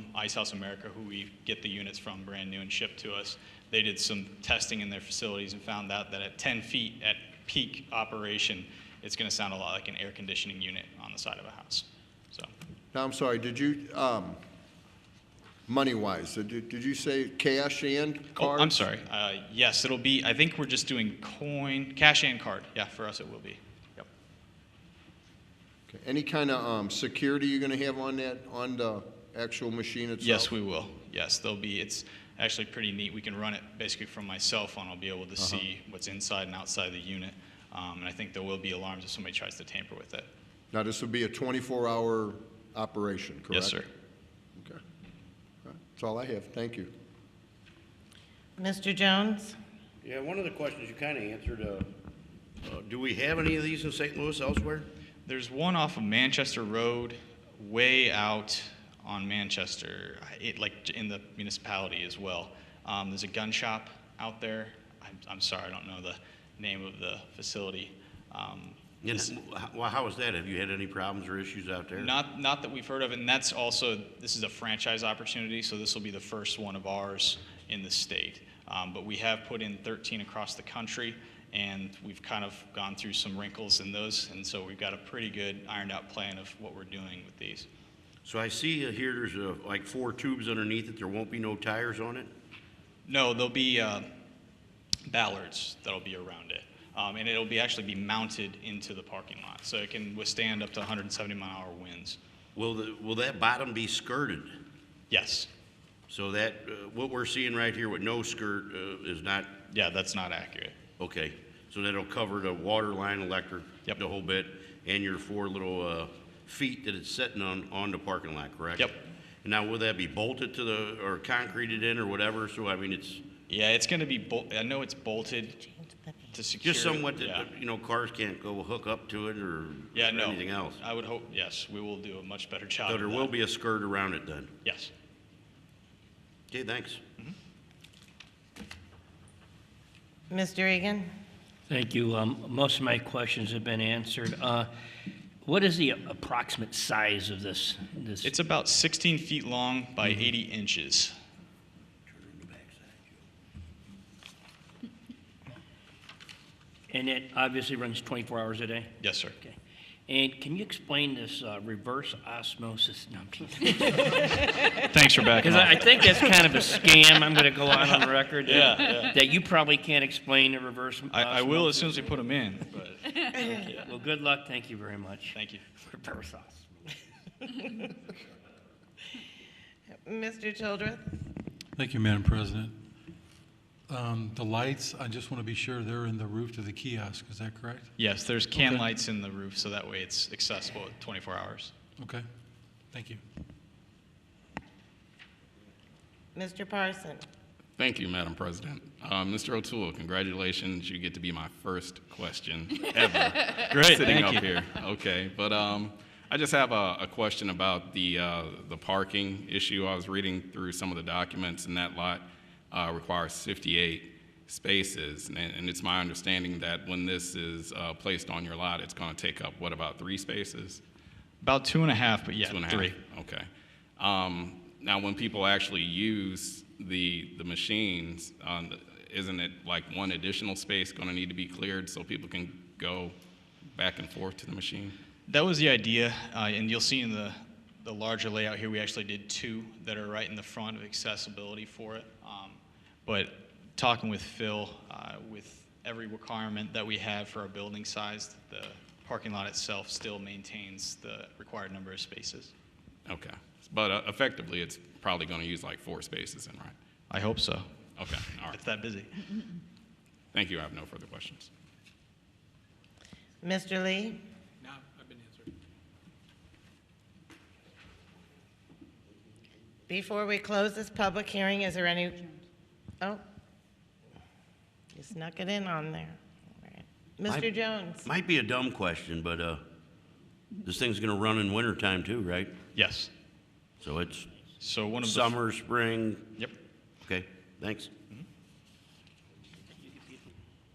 from Ice House America, who we get the units from brand new and shipped to us. They did some testing in their facilities and found out that at 10 feet at peak operation, it's going to sound a lot like an air conditioning unit on the side of a house. So Now, I'm sorry, did you, um, money-wise, did you, did you say cash and Oh, card? I'm sorry. Uh, yes, it'll be. I think we're just doing coin, cash, and card. Yeah, for us it will be. Yep. Okay. Any kind of, um, security you're gonna have on that, on the actual machine itself? Yes, we will. Yes, there'll be. It's actually pretty neat. We can run it basically from my cell phone. I'll be able to see what's inside and outside the unit. Um, and I think there will be alarms if somebody tries to tamper with it. Now, this would be a twenty-four hour operation, correct? Yes, sir. Okay. All right. That's all I have, thank you. Mr. Jones? Yeah, one of the questions you kind of answered, uh, uh, do we have any of these in St. Louis elsewhere? There's one off of Manchester Road, way out on Manchester, it, like in the municipality as well. Um, there's a gun shop out there. I'm, I'm sorry, I don't know the name of the facility. Um, And h- Well, how is that? Have you had any problems or issues out there? Not, not that we've heard of, and that's also, this is a franchise opportunity, so this will be the first one of ours in the state. Um, But we have put in 13 across the country, and we've kind of gone through some wrinkles in those, and so we've got a pretty good ironed-out plan of what we're doing with these. So I see uh, here there's uh, like four tubes underneath it. There won't be no tires on it? No, there'll be uh, ballards that'll be around it, Um, and it'll be, actually be mounted into the parking lot, so it can withstand up to 170 mile-an-hour winds. Will, the- will that bottom be skirted? Yes, So that, uh, what we're seeing right here with no skirt uh, is not, yeah, that's not accurate. okay. So that'll cover the water line, electric, Yep. the whole bit, and your four little uh, feet that it's sitting on, on the parking lot, correct? Yep. And Now, will that be bolted to the, or concreted in or whatever? So I mean, it's, Yeah, it's going to be, bol- I know it's bolted to secure. Just somewhat yeah. that, you know, cars can't go hook up to it or Yeah, or no. Uh, anything else. I would hope, yes, we will do a much better job. So of there that. will be a skirt around it then. Yes. Okay, thanks. Mr. Egan? Thank you. Um, Most of my questions have been answered. Uh, What is the approximate size of this? this- It's about 16 feet long by Mm-hmm. 80 inches. And it obviously runs 24 hours a day? Yes, sir. Okay. And can you explain this uh, reverse osmosis? Because Thanks for backing I I up. think that's kind of a scam, I'm going to go on on record. that- Yeah, yeah. That you probably can't explain the reverse osmosis. I, I will as soon as we put them in, but Well, good luck, thank you very much. thank you. Reverse osmosis. Mr. Childress? Thank you, Madam President. Um, The lights, I just want to be sure they're in the roof to the kiosk, is that correct? Yes, there's can Okay. lights in the roof, so that way it's accessible at 24 hours. Okay, thank you. Mr. Parson? Thank you, Madam President. Uh, Mr. O'Toole, congratulations. You get to be my first question ever Great, sitting thank up you. here. Okay, but um, I just have a, a question about the uh, the parking issue. I was reading through some of the documents, and that lot uh, requires 58 spaces, and, and it's my understanding that when this is uh, placed on your lot, it's going to take up what about three spaces? About two and a half, but yeah, Two and a half. three. Okay. Um, now, when people actually use the, the machines, um, isn't it like one additional space going to need to be cleared so people can go back and forth to the machine? That was the idea, uh, and you'll see in the, the larger layout here, we actually did two that are right in the front of accessibility for it. Um, but talking with Phil, uh, with every requirement that we have for our building size, the parking lot itself still maintains the required number of spaces. Okay. But uh, effectively, it's probably going to use like four spaces then, right? I hope so. Okay. All right. It's that busy. Thank you. I have no further questions. Mr. Lee? Before we close this public hearing, is there any, oh, you snuck it in on there. All right. I- Mr. Jones? Might be a dumb question, but uh, this thing's going to run in wintertime too, right? Yes. So it's So one of the summer, spring, Yep. okay, thanks.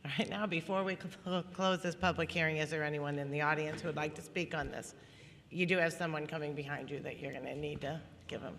All right, now, before we cl- close this public hearing, is there anyone in the audience who would like to speak on this? You do have someone coming behind you that you're going to need to give them.